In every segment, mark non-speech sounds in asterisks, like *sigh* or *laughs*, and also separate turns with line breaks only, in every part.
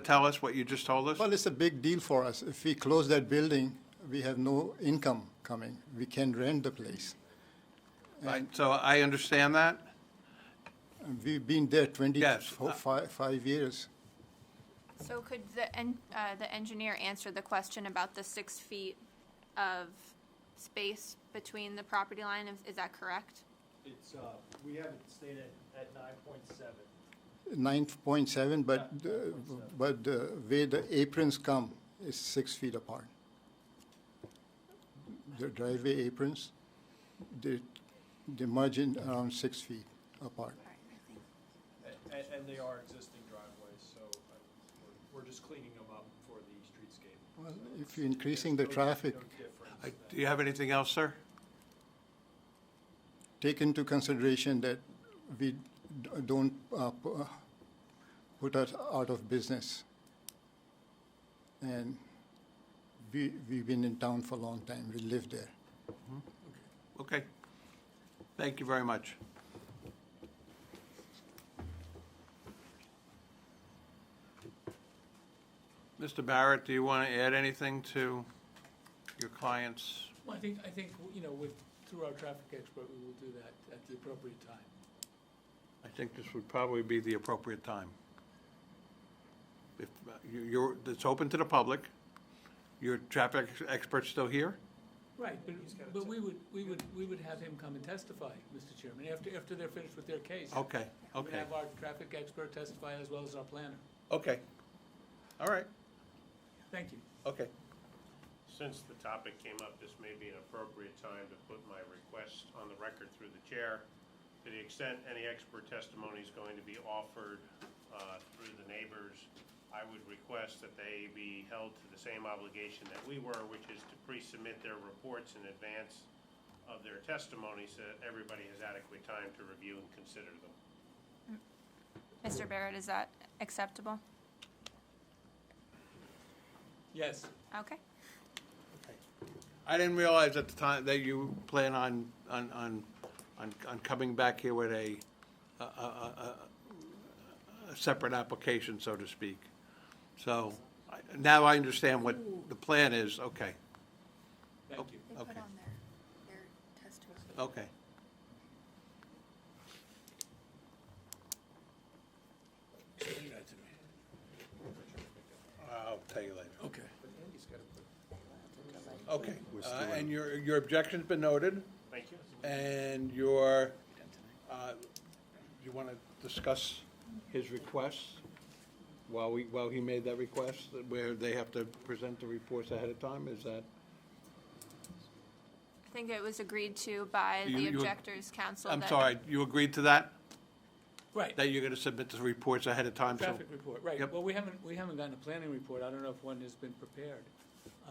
tell us what you just told us?
Well, it's a big deal for us. If we close that building, we have no income coming. We can rent the place.
Right, So I understand that.
And we've been there 20,
Yes,
fo-
uh,
fi- five years.
So could the, en- uh, the engineer answer the question about the six feet of space between the property line? Is- Is that correct?
It's, uh, we have it stated at nine point seven.
9.7, but,
Yeah,
the-
9.7.
but the way the aprons come is six feet apart. The driveway aprons, they, they merge in around six feet apart.
And, and they are existing driveways, so uh, we're- we're just cleaning them up for the streetscape.
Well, if you're increasing the
There's no-
traffic,
no difference
I-
than-
Do you have anything else, sir?
take into consideration that we d- don't uh, p- uh, put us out of business. And we, we've been in town for a long time, we live there.
Okay. Thank you very much. Mr. Barrett, do you want to add anything to your client's?
Well, I think, I think, you know, with, through our traffic expert, we will do that at the appropriate time.
I think this would probably be the appropriate time. If uh, you- you're, it's open to the public. Your traffic expert's still here?
Right, but, but we would, we would, we would have him come and testify, Mr. Chairman, after, after they're finished with their case.
Okay, Oh,
We would
okay,
have our traffic expert testify as well as our planner.
okay. All right,
Thank you.
okay.
Since the topic came up, this may be an appropriate time to put my request on the record through the chair. To the extent any expert testimony is going to be offered uh, through the neighbors, I would request that they be held to the same obligation that we were, which is to pre-submit their reports in advance of their testimony so that everybody has adequate time to review and consider them.
Mr. Barrett, is that acceptable?
Yes,
Okay.
I didn't realize at the time that you plan on, on, on, on, on coming back here with a, a, a, a, a separate application, so to speak. So, I- now I understand what the plan is, okay, Oh.
thank you.
They put on
Okay.
their, their testimony.
okay. I'll tell you later.
Okay.
Okay, uh, and your, your objection's been noted?
Thank you.
And your, uh, you want to discuss his requests while we, while he made that request, where they have to present the reports ahead of time, is that?
I think it was agreed to by
You-
the
you-
objectors' counsel.
I'm
that-
sorry, you agreed to that?
Right,
That you're going to submit the reports ahead of time, so?
traffic report, right.
Yep.
Well, we haven't, we haven't gotten a planning report. I don't know if one has been prepared. Uh,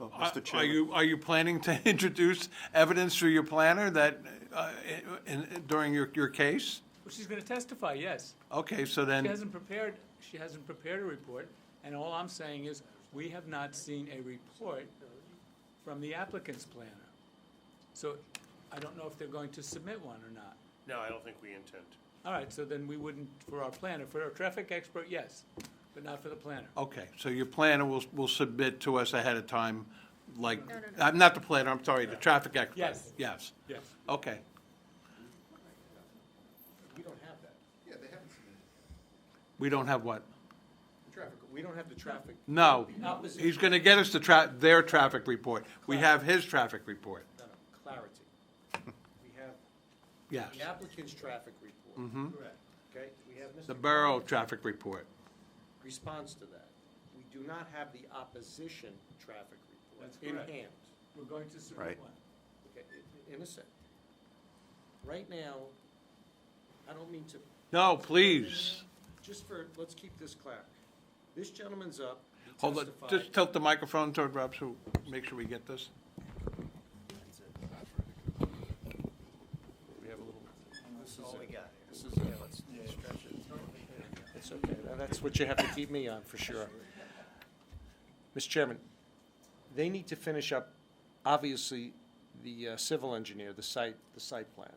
Are- Are you, are you planning to *laughs* introduce evidence through your planner that, uh, in- during your, your case?
Well, she's gonna testify, yes.
Okay, so then.
She hasn't prepared, she hasn't prepared a report, and all I'm saying is, we have not seen a report from the applicant's planner. So I don't know if they're going to submit one or not.
No, I don't think we intend to.
All right, so then we wouldn't, for our planner, for our traffic expert, yes, but not for the planner.
Okay, so your planner will, will submit to us ahead of time, like, I'm not the planner, I'm sorry, the traffic expert?
Yes.
Yes,
Yes.
okay.
We don't have that. Yeah, they haven't submitted
We don't have what?
the traffic, we don't have the traffic.
No,
Not with-
he's gonna get us the tra, their traffic report. We have his traffic report,
No, no, clarity. We have
yes.
the applicant's traffic report. Correct. Okay, we have
Mm-hmm. The
Mr.
borough traffic report.
response to that. We do not have the opposition traffic report
That's
in
correct.
hand,
We're going to submit one.
okay, i- in a sec. Right now, I don't mean to,
No, please,
just for, let's keep this clear. This gentleman's up, he
hold on,
testified.
just tilt the microphone toward Rob, so make sure we get this.
This is it. This is it. It's okay, Now, that's what you have to keep me on, for sure. Mr. Chairman, they need to finish up, obviously, the uh, civil engineer, the site, the site plan.